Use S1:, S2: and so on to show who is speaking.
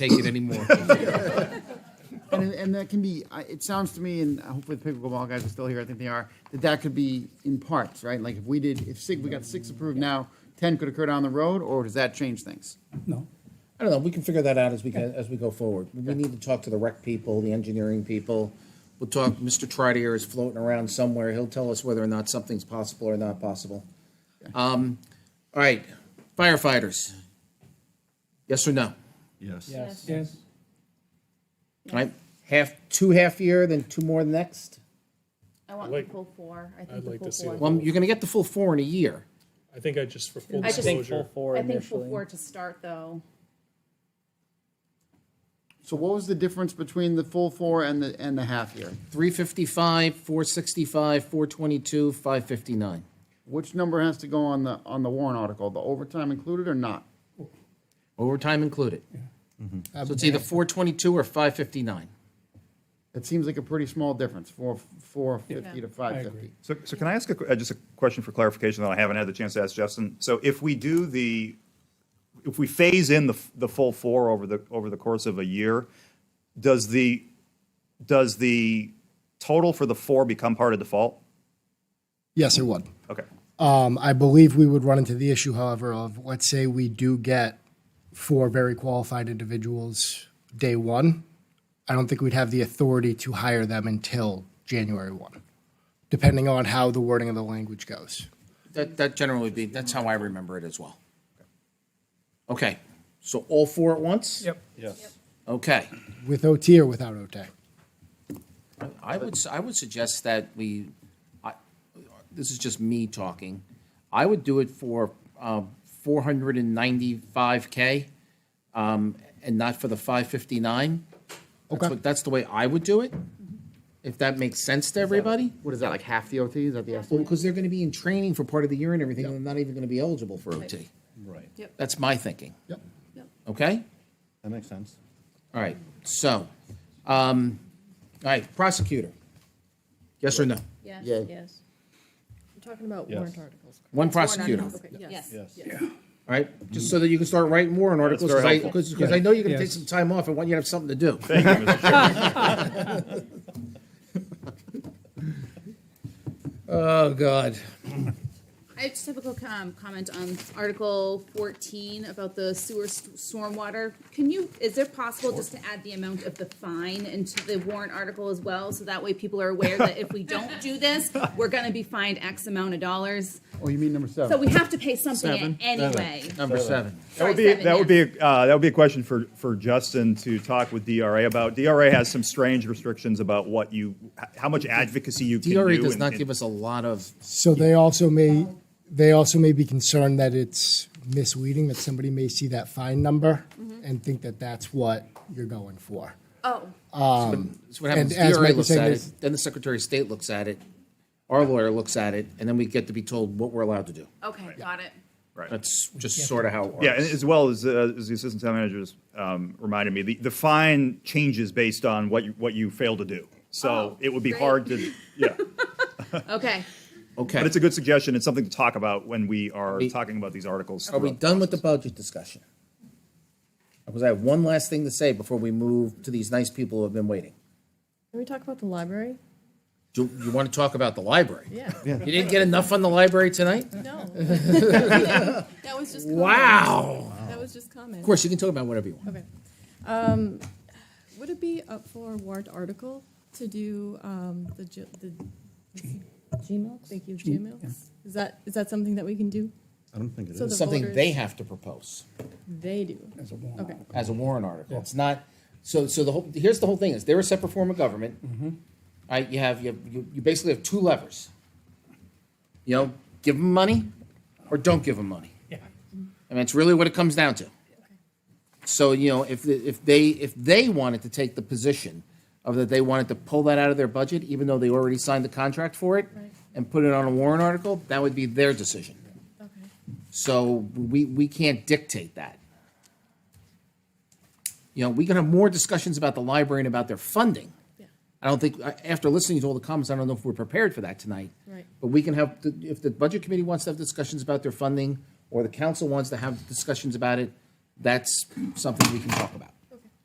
S1: take it anymore.
S2: And, and that can be, I- it sounds to me, and hopefully the pickleball guys are still here, I think they are, that that could be in parts, right? Like if we did, if SIG, we got six approved now, 10 could occur down the road, or does that change things?
S3: No.
S4: I don't know, we can figure that out as we, go- as we go forward. We need to talk to the rec people, the engineering people. We'll talk, Mr. Tridier is floating around somewhere, he'll tell us whether or not something's possible or not possible. Um, All right, firefighters. Yes or no?
S5: Yes.
S6: Yes.
S3: Yes.
S4: All Right, half, two half-year, then two more next?
S6: I want the full four. I think
S7: I'd
S6: the
S7: like
S6: full
S7: to see the
S6: four.
S4: Well, you're gonna get the full four in a year.
S7: I think I just, for full
S6: I just-
S8: think full
S7: disclosure,
S8: four
S6: I think full
S8: initially.
S6: four to start though.
S2: So what was the difference between the full four and the, and the half year?
S4: 355, 465, 422, 559.
S2: Which number has to go on the, on the warrant article, the overtime included or not?
S4: Overtime included. So it's either 422 or 559.
S2: It seems like a pretty small difference, four, 450 to 550.
S5: So, so can I ask a que- uh, just a question for clarification that I haven't had the chance to ask Justin? So if we do the, if we phase in the, f- the full four over the, over the course of a year, does the, does the total for the four become part of default?
S9: Yes, it would.
S5: Okay.
S4: Uh,
S9: Um, I believe we would run into the issue, however, of let's say we do get four very qualified individuals day one. I don't think we'd have the authority to hire them until January one, depending on how the wording of the language goes.
S4: That, that generally would be, that's how I remember it as well. Okay, so all four at once?
S3: Yep.
S5: Yes.
S4: Okay.
S9: With OT or without OT?
S4: I would, s- I would suggest that we, I, this is just me talking. I would do it for, um, four hundred and ninety-five K, um, and not for the five fifty-nine. That's
S9: Okay.
S4: what, that's the way I would do it, if that makes sense to everybody.
S2: What is that, like half the OT? Is that the
S4: Well,
S2: estimate?
S4: because they're gonna be in training for part of the year and everything, and they're not even gonna be eligible for OT.
S6: Right. Yep.
S4: That's my thinking,
S9: Yep.
S4: okay?
S1: That makes sense.
S4: All right, so, um, all right, prosecutor. Yes or no?
S6: Yes,
S2: Yeah.
S6: yes. We're talking about warrant articles.
S4: One prosecutor, all
S6: Okay, yes.
S1: Yes.
S4: right? Just so that you can start writing warrant articles,
S5: very
S4: because I,
S5: helpful.
S4: because, because I know you're gonna take
S3: Yes.
S4: some time off, I want you to have something to do.
S5: Thank you, Mr. Chairman.
S4: Oh, God.
S6: I just have a quick um, comment on Article 14 about the sewer s- stormwater. Can you, is it possible just to add the amount of the fine into the warrant article as well? So that way people are aware that if we don't do this, we're going to be fined X amount of dollars.
S2: Oh, you mean number seven?
S6: So we have to pay something
S4: Seven.
S6: anyway.
S4: Number seven.
S5: That
S6: Sorry,
S5: would be,
S6: seven,
S5: that would
S6: yeah.
S5: be, uh, that would be a question for, for Justin to talk with DRA about. DRA has some strange restrictions about what you, h- how much advocacy you can do.
S4: DRA does
S5: and-
S4: not
S5: and-
S4: give us a lot of,
S9: So they also may, they also may be concerned that it's misleading, that somebody may see that fine number and think that that's what you're going for.
S6: Oh,
S4: so what happens,
S9: And as
S4: DRA
S9: Mike was
S4: looks
S9: saying,
S4: at
S9: there's-
S4: it, then the Secretary of State looks at it, our lawyer looks at it, and then we get to be told what we're allowed to do.
S6: Oh, okay, got it.
S5: Right.
S4: That's just sort of how it works.
S5: Yeah, and as well as, uh, as the assistant town manager just, um, reminded me, the, the fine changes based on what you, what you fail to do. So
S6: Oh,
S5: it would be
S6: great.
S5: hard to, yeah.
S6: Okay.
S4: Okay,
S5: But it's a good suggestion. It's something to talk about when we are
S4: We-
S5: talking about these articles.
S4: are we
S5: throughout.
S4: done with the budget discussion? Because I have one last thing to say before we move to these nice people who have been waiting.
S10: Can we talk about the library?
S4: Do you want to talk about the library?
S10: Yeah.
S4: You didn't get enough on the library tonight?
S10: No. That was just.
S4: Wow.
S10: That was just comment.
S4: Of course, you can talk about whatever you want.
S10: Okay. Um, would it be up for a warrant article to do, um, the, G- the,
S8: Gmail?
S10: thank you, Gmail? Is that, is that something that we can do?
S1: I don't think it
S10: So
S1: is.
S10: the
S4: Something they
S10: voters-
S4: have to propose
S10: They do.
S3: As a warrant
S10: Okay.
S4: as a warrant article. It's not, so, so the whole, here's the whole thing is they're a separate form of government. All right, you have, you, have- you you basically have two levers. You know, give them money or don't give them money. Yeah. I mean, it's really what it comes down to. So, you know, if, the- if they, if they wanted to take the position of that they wanted to pull that out of their budget, even though they already signed the contract for it
S10: Right.
S4: and put it on a warrant article, that would be their decision.
S10: Okay.
S4: So we, we can't dictate that. You know, we can have more discussions about the library and about their funding.
S10: Yeah.
S4: I don't think, I- after listening to all the comments, I don't know if we're prepared for that tonight.
S10: Right.
S4: But we can have, if the budget committee wants to have discussions about their funding, or the council wants to have discussions about it, that's something we can talk about.